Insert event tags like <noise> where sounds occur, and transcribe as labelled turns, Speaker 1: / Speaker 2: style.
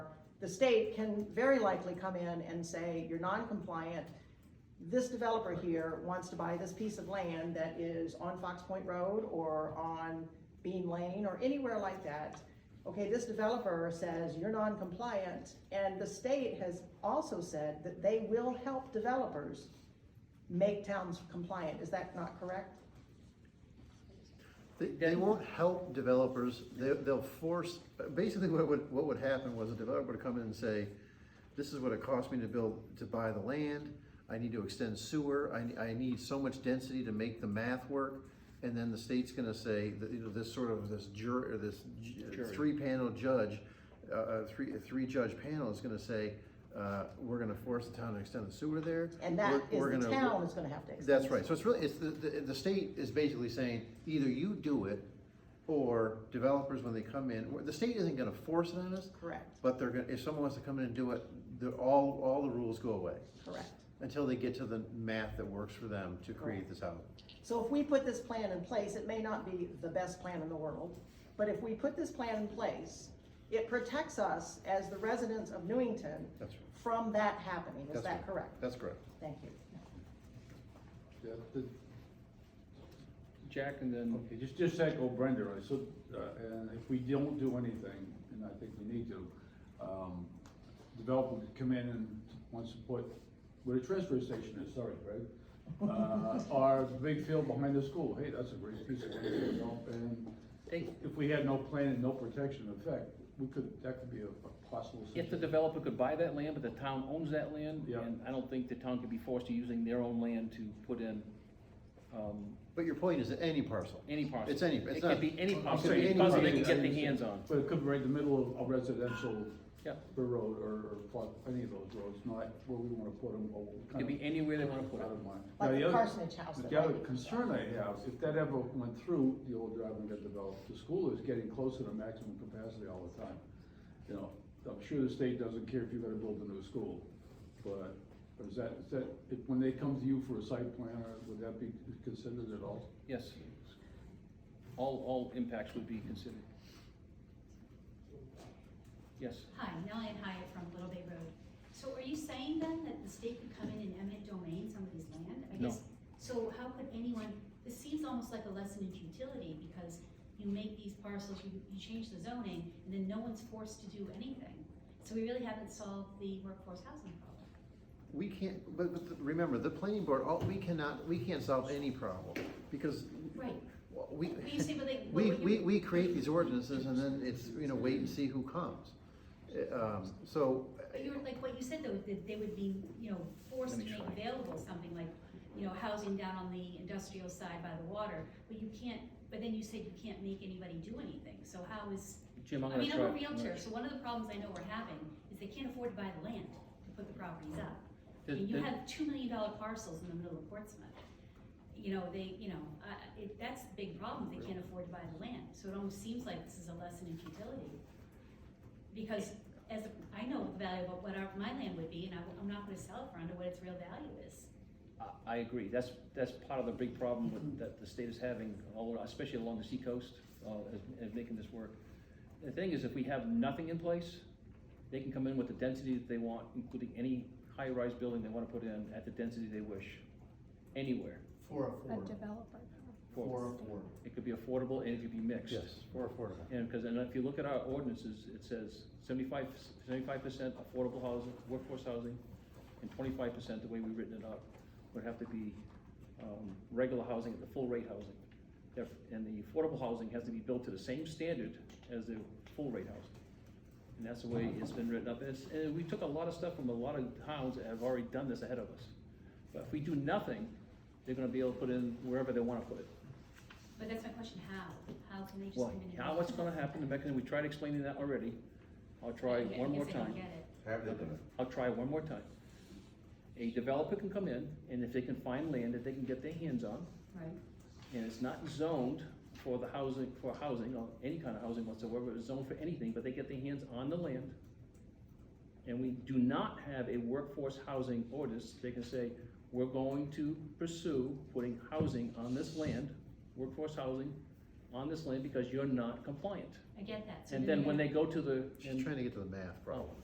Speaker 1: the state can very likely come in and say, you're non-compliant. This developer here wants to buy this piece of land that is on Fox Point Road or on Bean Lane or anywhere like that. Okay, this developer says you're non-compliant, and the state has also said that they will help developers make towns compliant. Is that not correct?
Speaker 2: They, they won't help developers, they, they'll force, basically what would, what would happen was a developer would come in and say, this is what it cost me to build, to buy the land, I need to extend sewer, I, I need so much density to make the math work. And then the state's gonna say, that, you know, this sort of, this jur, or this j-
Speaker 3: Jury.
Speaker 2: three panel judge, uh, uh, three, three judge panel is gonna say, uh, we're gonna force the town to extend the sewer there.
Speaker 1: And that
Speaker 2: We're- we're
Speaker 1: is the
Speaker 2: gonna-
Speaker 1: town is gonna have to.
Speaker 2: That's right, so it's really, it's the, the, the state is basically saying, either you do it, or developers, when they come in, the state isn't gonna force it on us,
Speaker 1: Correct,
Speaker 2: but they're gonna, if someone wants to come in and do it, they're, all, all the rules go away,
Speaker 1: correct.
Speaker 2: until they get to the math that works for them to create this housing.
Speaker 1: So if we put this plan in place, it may not be the best plan in the world, but if we put this plan in place, it protects us as the residents of Newington
Speaker 2: That's right.
Speaker 1: from that happening. Is
Speaker 2: That's
Speaker 1: that
Speaker 2: right.
Speaker 1: correct?
Speaker 2: That's correct.
Speaker 1: Thank you.
Speaker 4: Yeah, the-
Speaker 3: Jack and then,
Speaker 4: Okay, just, just echo Brenda, right, so, uh, and if we don't do anything, and I think we need to, um, developer could come in and wants to put, where the transfer station is, sorry, Greg. Uh, or the big field behind the school, hey, that's a great piece of land, to develop, and
Speaker 3: Hey.
Speaker 4: if we had no plan and no protection in effect, we could, that could be a a possible
Speaker 3: if the
Speaker 4: solution.
Speaker 3: developer could buy that land, but the town owns that land,
Speaker 4: Yeah.
Speaker 3: and I don't think the town could be forced to using their own land to put in, um,
Speaker 2: But your point is that any parcel,
Speaker 3: any parcel.
Speaker 2: It's any- it's
Speaker 3: It
Speaker 2: not-
Speaker 3: could be any
Speaker 4: I'm
Speaker 3: parcel,
Speaker 4: saying
Speaker 3: any
Speaker 4: any
Speaker 3: parcel they
Speaker 4: parcel.
Speaker 3: can get their hands on,
Speaker 4: But it could be right in the middle of a residential
Speaker 3: yeah.
Speaker 4: road or, or plot- any of those roads, not where we wanna put them, or what
Speaker 3: It
Speaker 4: kind
Speaker 3: could
Speaker 4: of.
Speaker 3: be anywhere they wanna put it.
Speaker 4: Out of mind.
Speaker 1: Like
Speaker 4: Now,
Speaker 1: the
Speaker 4: other-
Speaker 1: parsonage house
Speaker 4: but
Speaker 1: that
Speaker 4: The other
Speaker 1: Mike-
Speaker 4: concern I have, if that ever went through, the old drive and got developed, the school is getting closer to maximum capacity all the time. You know, I'm sure the state doesn't care if you're gonna build a new school, but is that, is that, if, when they come to you for a site plan, or would that be considered at all?
Speaker 3: Yes. All, all impacts would be considered. Yes,
Speaker 5: Hi, Nellie and Hyatt from Little Bay Road. So are you saying then that the state could come in and eminent domain somebody's land? I
Speaker 3: No.
Speaker 5: guess. So how could anyone, this seems almost like a lesson in futility because you make these parcels, you, you change the zoning, and then no one's forced to do anything. So we really haven't solved the workforce housing problem.
Speaker 2: we can't, but, but the- remember, the planning board, all, we cannot, we can't solve any problem, because
Speaker 5: Right.
Speaker 2: we.
Speaker 5: But you see, but they.
Speaker 2: We,
Speaker 5: but you-
Speaker 2: we, we create these ordinances and then it's, you know, wait and see who comes. Uh, Um, so,
Speaker 5: But you were, like what you said though, that they would be, you know, forced to
Speaker 3: Let me
Speaker 5: make
Speaker 3: try.
Speaker 5: available something like, you know, housing down on the industrial side by the water, but you can't, but then you said you can't make anybody do anything, so how is,
Speaker 3: Jim, I'm
Speaker 5: I
Speaker 3: gonna
Speaker 5: mean,
Speaker 3: try.
Speaker 5: I'm a realtor, so one of the problems I know we're having is they can't afford to buy the land to put the properties up. I
Speaker 3: Th-
Speaker 5: mean, you
Speaker 3: th-
Speaker 5: have two million dollar parcels in the middle of Portsmouth. You know, they, you know, uh, it, that's the big problem, they can't afford to buy the land, so it almost seems like this is a lesson in futility. Because as, I know the value of what our, my land would be, and I'm, I'm not gonna sell it for under what its real value is.
Speaker 3: I- I agree, that's, that's part of the big problem with, that the state is having, all- especially along the seacoast, uh, as, as making this work. The thing is, if we have nothing in place, they can come in with the density that they want, including any high-rise building they wanna put in at the density they wish, anywhere.
Speaker 6: For
Speaker 7: a
Speaker 6: affordable,
Speaker 7: developer.
Speaker 3: for-
Speaker 6: for affordable.
Speaker 3: It could be affordable and it could be mixed.
Speaker 2: yes, more affordable.
Speaker 3: And, because, and if you look at our ordinances, it says 75 percent affordable housing, workforce housing, and twenty-five percent, the way we've written it up, would have to be, um, regular housing, the full rate housing. If- And the affordable housing has to be built to the same standard as the full rate housing. And that's the way it's been written up, and it's, and we took a lot of stuff from a lot of towns that have already done this ahead of us. But if we do nothing, they're gonna be able to put in wherever they wanna put it.
Speaker 5: But that's my question, how? How can they just
Speaker 3: Well,
Speaker 5: come in and?
Speaker 3: now what's gonna happen, the mechanism, we tried explaining that already, I'll try
Speaker 5: <laughs> I
Speaker 3: one more
Speaker 5: guess I don't
Speaker 3: time,
Speaker 5: get it.
Speaker 3: I'll try one more time. A developer can come in, and if they can find land that they can get their hands on,
Speaker 5: Right,
Speaker 3: and it's not zoned for the housing, for housing, or any kind of housing whatsoever, it's zoned for anything, but they get their hands on the land, and we do not have a workforce housing ordinance, they can say, we're going to pursue putting housing on this land, workforce housing on this land, because you're not compliant.
Speaker 5: I get that. So
Speaker 3: And then
Speaker 5: you
Speaker 3: when
Speaker 5: have-
Speaker 3: they go to the,
Speaker 2: She's trying to get to the math problem.